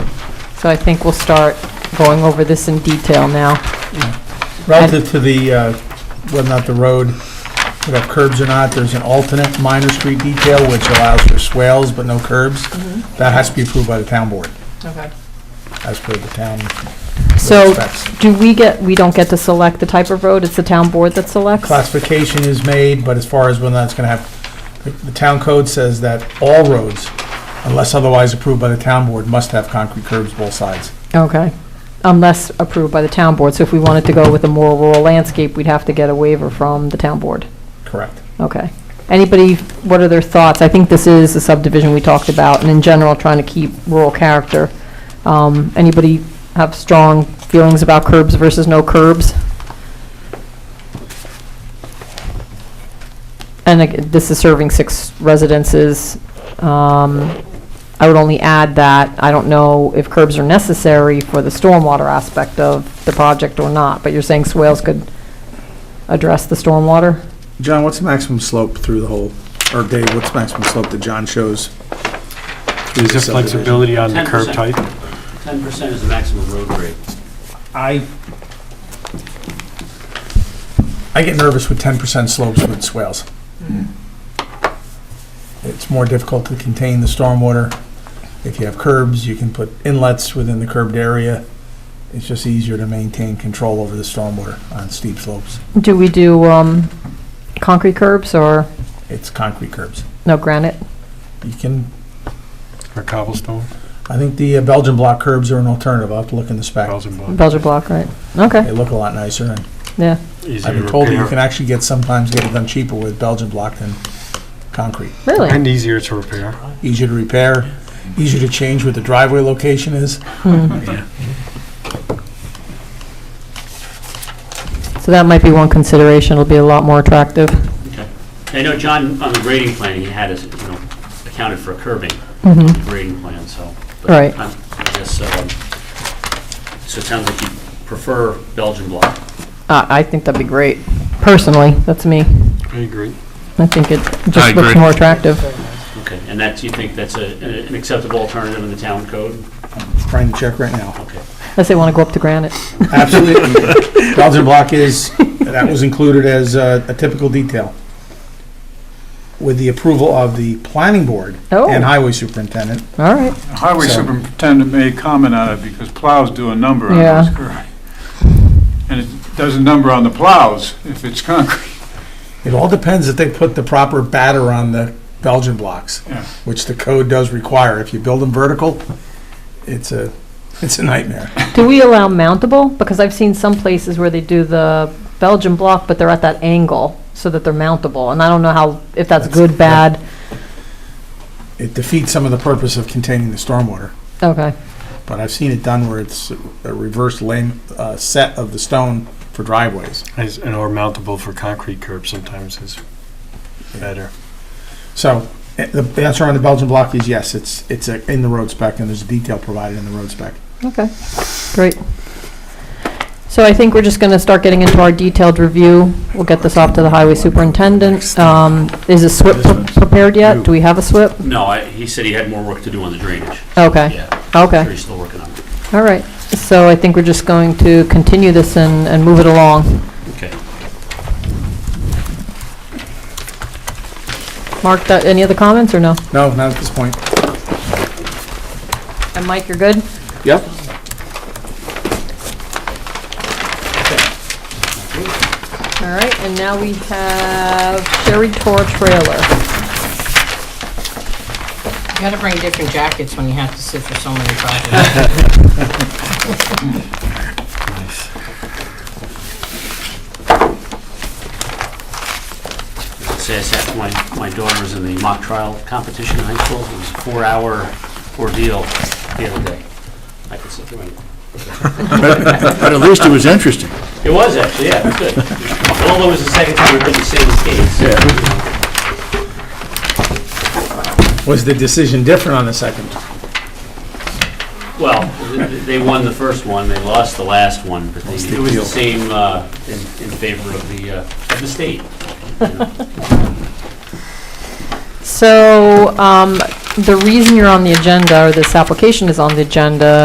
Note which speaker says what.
Speaker 1: So I think we'll start going over this in detail now.
Speaker 2: Relative to the, uh, whether or not the road would have curbs or not, there's an alternate minor street detail which allows for swales but no curbs. That has to be approved by the town board,
Speaker 1: Okay.
Speaker 2: as per the town
Speaker 1: So
Speaker 2: specs.
Speaker 1: do we get, we don't get to select the type of road, it's the town board that selects?
Speaker 2: Classification is made, but as far as whether or not it's going to have, the- the town code says that all roads, unless otherwise approved by the town board, must have concrete curbs both sides.
Speaker 1: Okay, unless approved by the town board. So if we wanted to go with a more rural landscape, we'd have to get a waiver from the town board.
Speaker 2: Correct.
Speaker 1: Okay. Anybody, what are their thoughts? I think this is a subdivision we talked about, and in general, trying to keep rural character. Um, Anybody have strong feelings about curbs versus no curbs? And ag- this is serving six residences. Um, I would only add that I don't know if curbs are necessary for the stormwater aspect of the project or not, but you're saying swales could address the stormwater?
Speaker 3: John, what's the maximum slope through the whole, or Dave, what's the maximum slope that John shows? through
Speaker 4: Is
Speaker 3: the
Speaker 4: there
Speaker 3: subdivision?
Speaker 4: flexibility on the curb
Speaker 5: 10%.
Speaker 4: type?
Speaker 5: Ten percent is the maximum road grade.
Speaker 2: I, I get nervous with ten percent slopes with swales. It's more difficult to contain the stormwater. If you have curbs, you can put inlets within the curbed area. It's just easier to maintain control over the stormwater on steep slopes.
Speaker 1: Do we do um, concrete curbs or
Speaker 2: It's concrete curbs.
Speaker 1: no granite?
Speaker 2: You can,
Speaker 4: Or cobblestone,
Speaker 2: I think the uh, Belgian block curbs are an alternative. I'll have to look in the spec.
Speaker 4: Belgian block?
Speaker 1: Belgian block, right? Okay,
Speaker 2: They look a lot nicer, and
Speaker 1: yeah.
Speaker 4: Easy
Speaker 2: I've
Speaker 4: to
Speaker 2: been told that you can
Speaker 4: repair.
Speaker 2: actually get, sometimes get it done cheaper with Belgian block than concrete.
Speaker 1: Really?
Speaker 4: And easier to repair.
Speaker 2: easier to repair, easier to change where the driveway location is.
Speaker 1: So that might be one consideration. It'll be a lot more attractive.
Speaker 5: Okay. I know John, on the grading plan, he had us, you know, accounted for curbing,
Speaker 1: Mhm.
Speaker 5: the grading plan, so. but
Speaker 1: Right.
Speaker 5: I'm- I guess, um, so it sounds like you prefer Belgian block.
Speaker 1: Uh, I think that'd be great. Personally, that's me.
Speaker 4: I agree.
Speaker 1: I think it
Speaker 6: I
Speaker 1: just looks
Speaker 6: agree.
Speaker 1: more attractive.
Speaker 5: Okay, and that's, you think that's a- an an acceptable alternative in the town code?
Speaker 2: Trying to check right now.
Speaker 5: Okay.
Speaker 1: Unless they want to go up to granite.
Speaker 2: Absolutely. Belgian block is, that was included as uh, a typical detail. With the approval of the planning board and
Speaker 1: Oh.
Speaker 2: highway superintendent.
Speaker 1: All right.
Speaker 7: Highway
Speaker 2: So-
Speaker 7: superintendent made comment on it because plows do a number on
Speaker 1: Yeah.
Speaker 7: those curves. And it does a number on the plows if it's concrete.
Speaker 2: It all depends if they put the proper batter on the Belgian blocks,
Speaker 7: Yeah.
Speaker 2: which the code does require. If you build them vertical, it's a, it's a nightmare.
Speaker 1: Do we allow mountable? Because I've seen some places where they do the Belgian block, but they're at that angle so that they're mountable. And I don't know how, if that's
Speaker 2: That's-
Speaker 1: good, bad.
Speaker 2: It defeats some of the purpose of containing the stormwater.
Speaker 1: Okay.
Speaker 2: But I've seen it done where it's a reverse lane, uh, set of the stone for driveways.
Speaker 4: As- And or mountable for concrete curb sometimes is better.
Speaker 2: So, eh, the answer on the Belgian block is yes, it's, it's uh, in the road spec, and there's a detail provided in the road spec.
Speaker 1: Okay, great. So I think we're just going to start getting into our detailed review. We'll get this off to the highway superintendent. Um, Is a SWIP pre- prepared yet? Do we have a SWIP?
Speaker 5: No, I- he said he had more work to do on the drainage.
Speaker 1: Okay,
Speaker 5: Yeah,
Speaker 1: okay,
Speaker 5: sure he's still working on it.
Speaker 1: all right. So I think we're just going to continue this and, and move it along.
Speaker 5: Okay.
Speaker 1: Mark, that- any other comments or no?
Speaker 2: No, not at this point.
Speaker 1: And Mike, you're good?
Speaker 3: Yep.
Speaker 1: All right, and now we have Sherry Tor Trailer.
Speaker 8: You gotta bring different jackets when you have to sit for so many projects.
Speaker 5: Say I sat, my, my daughter was in the mock trial competition in high school. It was a four-hour ordeal the other day. I could sit through it.
Speaker 6: But at least it was interesting.
Speaker 5: It was actually, yeah, it was good. Although it was the second time we've been the same case.
Speaker 2: Was the decision different on the second?
Speaker 5: Well, th- th- they won the first one, they lost the last one, but they- it was the same uh, in in favor of the, uh, of the state.
Speaker 1: So um, the reason you're on the agenda, or this application is on the agenda,